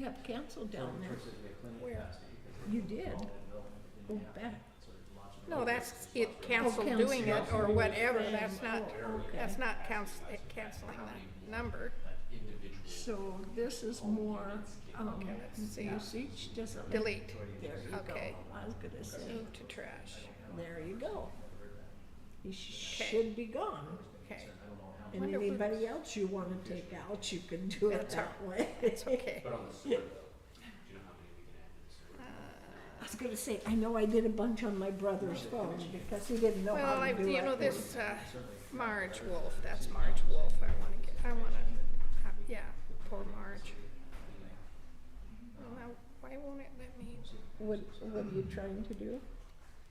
You have council down there. Where? You did. Oh, Go back. No, that's it, council Oh, council. doing it or whatever, that's not, Oh, okay. that's not council, eh, canceling the number. So this is more, um, let's see. usage, doesn't it? Delete, There you go. Okay. I was gonna say, move to trash, there you go. You sh- should be gone. okay, And Wonder if we- anybody else you wanna take out, you can do it That's that way. it's okay. Uh, I was gonna say, I know I did a bunch on my brother's phone because he didn't know Well, how I, to do it. you know, this, uh, Marge Wolf, that's Marge Wolf, I wanna get, I wanna, uh, yeah, poor Marge. Well, now, why won't it let me, What, what are you trying to do?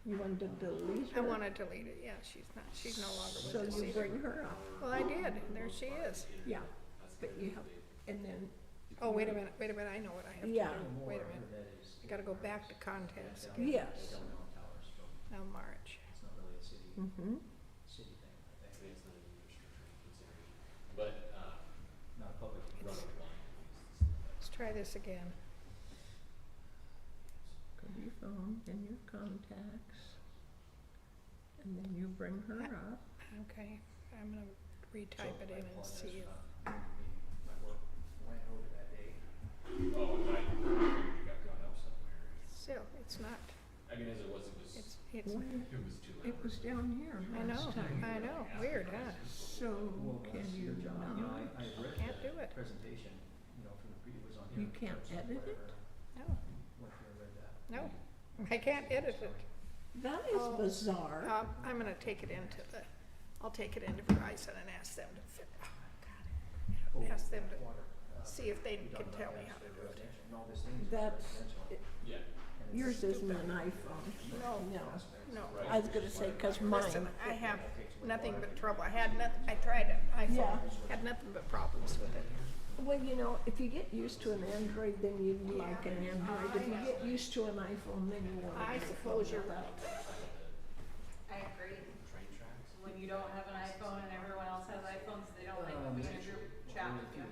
You want to delete I her? wanna delete it, yeah, she's not, she's no So longer with us you either. bring her up, Well, I did, and there she is. yeah, but you have, and then, Oh, wait a minute, wait a minute, I know what I have to Yeah. do, wait a minute. I gotta go back to contacts again, yes. now March. Mm-hmm. Let's try this again. Go to your phone, then your contacts, and then you bring her up. Okay, I'm gonna retype it in and see if, still, it's not, I mean, as it was, it was, it's, it's, Well, it was too It loud. was down here I know, last time. I know, weird, huh? So can you not, Can't do it, Presentation, you know, from the pre, it was on you here. can't edit it? no, Went through and read that. no, I can't edit it. That is Oh. bizarre. Um, I'm gonna take it into the, I'll take it into Verizon and ask them to, fi- oh, God. Ask them to see if they can tell me how to do it. And all these things, That's, it- Yeah, yours isn't an iPhone. No, No. no. I was gonna say, cause mine, Listen, I have nothing but trouble. I had nothing, I tried it, I Yeah. had nothing but problems with it. well, you know, if you get used to an Android, then you like an Android. If you get used to an iPhone, then you want an iPhone. I suppose you're without- I agree. When you don't have an iPhone and everyone else has iPhones, Uh, they don't like when we in a group chat with you.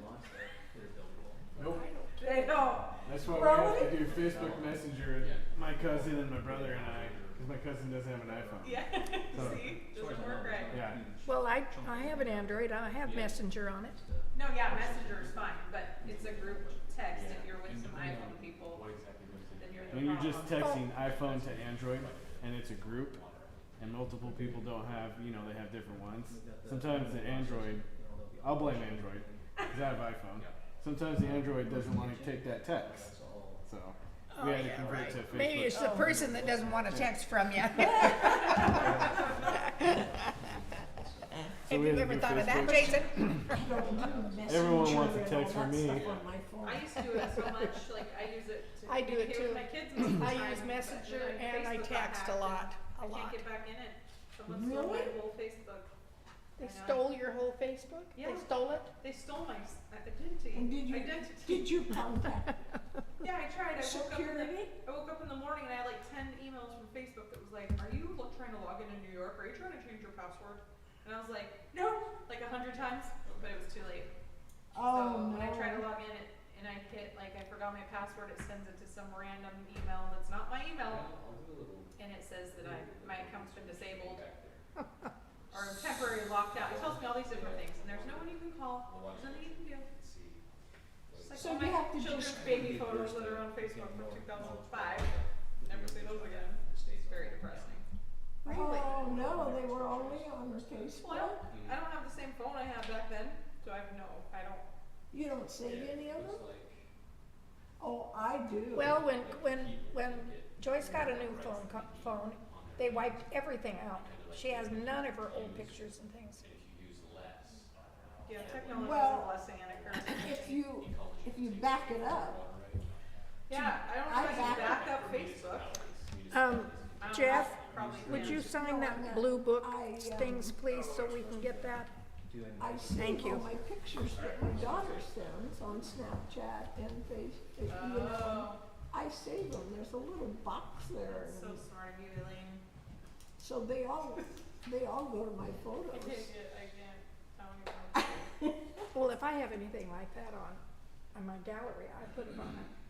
Nope. They don't. That's why we have to do Facebook Messenger. and My cousin and my brother and I, because my cousin doesn't have an iPhone. Yeah, see, doesn't work right. Yeah. Well, I, I have an Android, I have Messenger on it. No, yeah, Messenger is fine, but it's a group text if you're with some iPhone people, what exactly was it? then you're the When problem. you're just texting iPhone to Android, and it's a group, and multiple people don't have, you know, they have different ones. Sometimes the Android, I'll blame Android, because I have iPhone. Sometimes the Android doesn't want to take that text, so we had to convert to Facebook. Oh, Maybe it's the person that doesn't want a text from you. Have we you had to ever do thought of that, Facebook. Jason? Everyone wants Messenger a and text all from that me. stuff on my phone. I used to do it so much, like I use it to I do it communicate with too. my kids most of the I time, use but Messenger then and I Facebook got text a hacked lot, and a I lot. can't get back in it. Someone stole my Really? whole Facebook. They I know. stole your whole Facebook? They Yeah. stole it? They stole my s- identity. And did you, Identity. did you contact Yeah, I tried. I woke up in the security? I woke up in the morning and I had like ten emails from Facebook that was like, "Are you lo- trying to log into New York? Are you trying to change your password?" And I was like, "No!" Like a hundred times, but it was too late. so Oh, when I try to no. log in it, and I hit like I forgot my password, it sends it to some random email that's not my email, and it says that I my account's been disabled or I'm temporarily locked out. It tells me all these different things, and there's no one you can call. There's nothing you can do. It's like So all you my have to children's just- baby photos that are on Facebook from 2005. Never see those again. It's very depressing. Really? Oh, no, they were only on the Facebook? Well, I don't have the same phone I had back then, so I have no. I don't. You don't save any of them? Oh, I do. Well, when, when, when Joyce got a new phone, co- phone, they wiped everything out. She has none of her old pictures and things. Yeah, technology is Well, a blessing and a curse. If you, if you back it up, Yeah, I don't I know if I can back- back up Facebook. Um, I don't know, Jeff, probably would not. you sign that blue book um, things, please, so we can get that? I Thank save all you. my pictures that my daughter sends on Snapchat and Facebook, you know. Oh, I save them, there's a little box there, that's so and smart of you, Elaine. so they all, they all go to my I take photos. it. I can't. I don't even. Well, if I have anything like that on, on my gallery, I put it on a